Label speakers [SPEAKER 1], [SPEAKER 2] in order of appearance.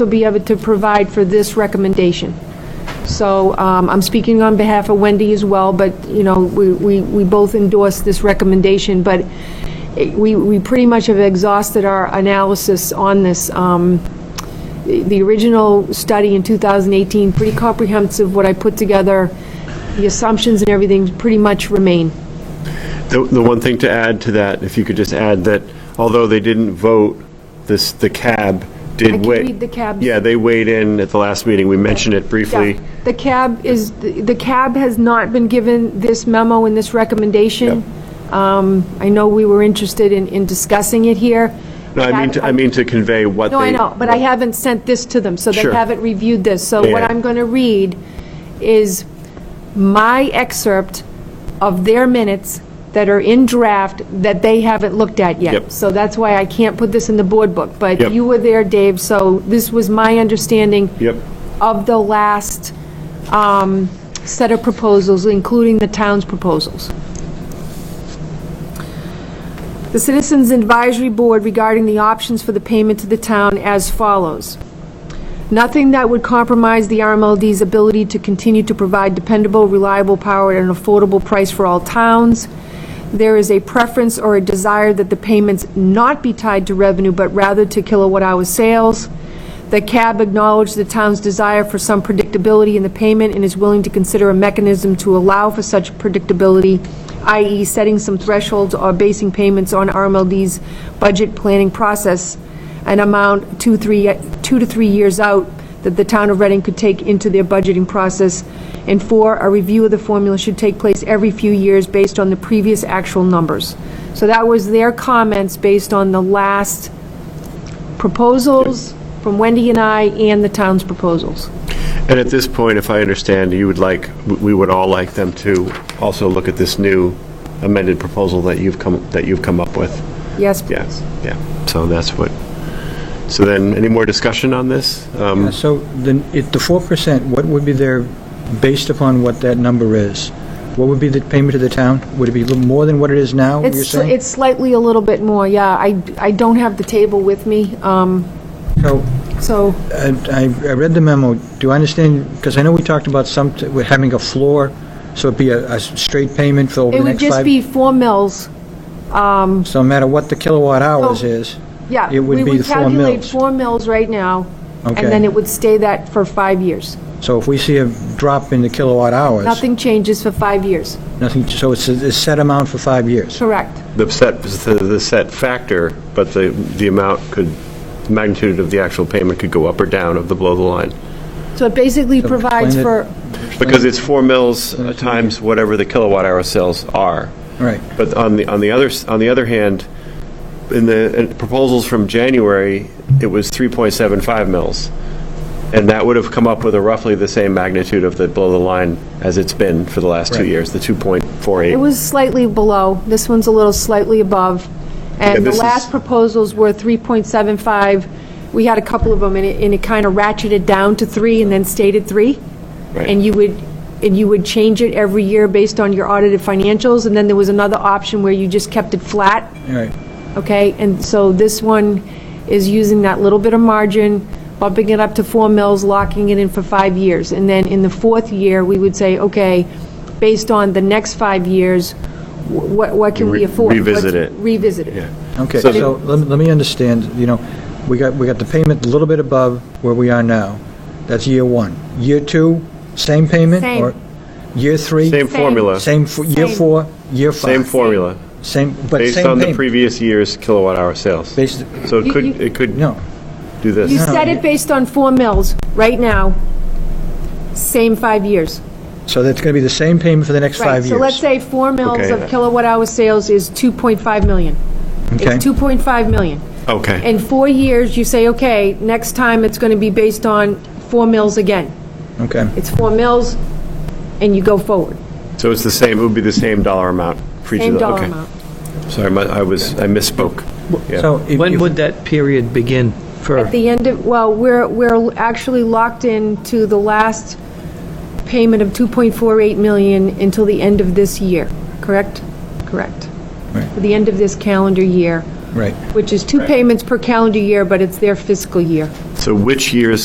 [SPEAKER 1] also be able to provide for this recommendation. So um, I'm speaking on behalf of Wendy as well, but, you know, we we we both endorse this recommendation, but it- we we pretty much have exhausted our analysis on this. Um, The the original study in 2018, pretty comprehensive, what I put together, the assumptions and everything pretty much remain.
[SPEAKER 2] The, the one thing to add to that, if you could just add that although they didn't vote, this, the cab
[SPEAKER 1] I
[SPEAKER 2] did
[SPEAKER 1] can
[SPEAKER 2] wait.
[SPEAKER 1] read the cab's-
[SPEAKER 2] Yeah, they weighed in at the last meeting. We mentioned it briefly.
[SPEAKER 1] Yeah, The cab is, the cab has not been given this memo and this recommendation. Um, I know we were interested in, in discussing it here.
[SPEAKER 2] No, I mean, to- I mean to convey what they.
[SPEAKER 1] No, I know, but I haven't sent this to them, so they
[SPEAKER 2] Sure.
[SPEAKER 1] haven't reviewed this. So
[SPEAKER 2] Yeah,
[SPEAKER 1] what
[SPEAKER 2] yeah.
[SPEAKER 1] I'm going to read is my excerpt of their minutes that are in draft that they haven't looked at yet.
[SPEAKER 2] Yep.
[SPEAKER 1] So that's why I can't put this in the board book. But
[SPEAKER 2] Yep.
[SPEAKER 1] you were there, Dave, so this was my understanding
[SPEAKER 2] Yep.
[SPEAKER 1] of the last um, set of proposals, including the town's proposals. The Citizens Advisory Board regarding the options for the payment to the town as follows. Nothing that would compromise the RMLD's ability to continue to provide dependable, reliable power at an affordable price for all towns. There is a preference or a desire that the payments not be tied to revenue, but rather to kilowatt-hour sales. The CAB acknowledged the town's desire for some predictability in the payment and is willing to consider a mechanism to allow for such predictability, i.e. setting some thresholds or basing payments on RMLD's budget planning process an amount two, three, two to three years out that the town of Reading could take into their budgeting process. And four, a review of the formula should take place every few years based on the previous actual numbers. So that was their comments based on the last proposals from Wendy and I and the town's proposals.
[SPEAKER 2] And at this point, if I understand, you would like, we would all like them to also look at this new amended proposal that you've come, that you've come up with.
[SPEAKER 1] Yes,
[SPEAKER 2] Yeah,
[SPEAKER 1] please.
[SPEAKER 2] yeah. So that's what, so then, any more discussion on this? Um,
[SPEAKER 3] So then, if the 4%, what would be their, based upon what that number is, what would be the payment to the town? Would it be a little more than what it is now, you're
[SPEAKER 1] It's,
[SPEAKER 3] saying?
[SPEAKER 1] it's slightly a little bit more, yeah. I, I don't have the table with me, um,
[SPEAKER 3] So,
[SPEAKER 1] so,
[SPEAKER 3] I, I I read the memo, do I understand, because I know we talked about some, we're having a floor, so it'd be a, a straight payment for over
[SPEAKER 1] it
[SPEAKER 3] the
[SPEAKER 1] would
[SPEAKER 3] next
[SPEAKER 1] just
[SPEAKER 3] five?
[SPEAKER 1] be four mills.
[SPEAKER 3] So no matter what the kilowatt hours
[SPEAKER 1] So-
[SPEAKER 3] is,
[SPEAKER 1] Yeah.
[SPEAKER 3] It would
[SPEAKER 1] we
[SPEAKER 3] be the four
[SPEAKER 1] We would calculate
[SPEAKER 3] mills.
[SPEAKER 1] four mills right now, and
[SPEAKER 3] Okay.
[SPEAKER 1] then it would stay that for five years.
[SPEAKER 3] so if we see a drop in the kilowatt hours?
[SPEAKER 1] Nothing changes for five years,
[SPEAKER 3] Nothing, so it's a a set amount for five years?
[SPEAKER 1] correct?
[SPEAKER 2] The set, the the set factor, but the, the amount could, magnitude of the actual payment could go up or down of the below the line.
[SPEAKER 1] So it basically
[SPEAKER 3] So
[SPEAKER 1] provides
[SPEAKER 3] explain it.
[SPEAKER 1] for,
[SPEAKER 2] Because it's four mils uh, times whatever the kilowatt hour sales are.
[SPEAKER 3] Right.
[SPEAKER 2] But on the, on the other, s- on the other hand, in the in proposals from January, it was 3.75 mils. And that would have come up with a roughly the same magnitude of the below the line as it's been for the last two
[SPEAKER 3] Right.
[SPEAKER 2] years, the 2.48.
[SPEAKER 1] it was slightly below, this one's a little slightly above,
[SPEAKER 2] Yeah,
[SPEAKER 1] and the
[SPEAKER 2] this is-
[SPEAKER 1] last proposals were 3.75. We had a couple of them, and it, and it kind of ratcheted down to three and then stayed at three.
[SPEAKER 2] Right.
[SPEAKER 1] And you would, and you would change it every year based on your audited financials, and then there was another option where you just kept it flat.
[SPEAKER 3] All right,
[SPEAKER 1] okay? And so this one is using that little bit of margin, bumping it up to four mils, locking it in for five years. And then in the fourth year, we would say, okay, based on the next five years, wh- what, what can we
[SPEAKER 2] Re-
[SPEAKER 1] afford?
[SPEAKER 2] revisit
[SPEAKER 1] Let's
[SPEAKER 2] it.
[SPEAKER 1] Revisit it.
[SPEAKER 3] okay,
[SPEAKER 2] So-
[SPEAKER 3] so let me- let me understand, you know, we got, we got the payment a little bit above where we are now. That's year one. Year two, same payment?
[SPEAKER 1] Same.
[SPEAKER 3] or Year three?
[SPEAKER 2] Same formula,
[SPEAKER 3] Same, f- year
[SPEAKER 1] Same.
[SPEAKER 3] four, year
[SPEAKER 2] same
[SPEAKER 3] five?
[SPEAKER 2] formula,
[SPEAKER 3] Same, but
[SPEAKER 2] based
[SPEAKER 3] same
[SPEAKER 2] on the
[SPEAKER 3] payment.
[SPEAKER 2] previous year's kilowatt hour sales.
[SPEAKER 3] Based,
[SPEAKER 2] So it
[SPEAKER 1] You-
[SPEAKER 2] could,
[SPEAKER 1] you-
[SPEAKER 2] it could
[SPEAKER 3] no,
[SPEAKER 2] do
[SPEAKER 1] You
[SPEAKER 2] this.
[SPEAKER 1] set it based on four mils, right now, same five years.
[SPEAKER 3] so that's going to be the same payment for the next
[SPEAKER 1] Right,
[SPEAKER 3] five years?
[SPEAKER 1] So let's say four mils
[SPEAKER 2] Okay.
[SPEAKER 1] of kilowatt-hour sales is 2.5 million.
[SPEAKER 3] Okay.
[SPEAKER 1] It's 2.5 million.
[SPEAKER 2] Okay.
[SPEAKER 1] In four years, you say, okay, next time it's going to be based on four mills again.
[SPEAKER 3] Okay,
[SPEAKER 1] It's four mills, and you go forward.
[SPEAKER 2] So it's the same, it would be the same dollar amount for each of
[SPEAKER 1] Same
[SPEAKER 2] the,
[SPEAKER 1] dollar
[SPEAKER 2] okay.
[SPEAKER 1] amount.
[SPEAKER 2] Sorry, my- I was, I misspoke. Yeah.
[SPEAKER 3] so. if-
[SPEAKER 4] When
[SPEAKER 3] if-
[SPEAKER 4] would that period begin for,
[SPEAKER 1] At the end of, well, we're, we're actually locked in to the last payment of 2.48 million until the end of this year, correct? Correct.
[SPEAKER 3] Right.
[SPEAKER 1] To The end of this calendar year,
[SPEAKER 3] Right,
[SPEAKER 1] which is two payments per calendar year, but it's their fiscal year.
[SPEAKER 2] So which year's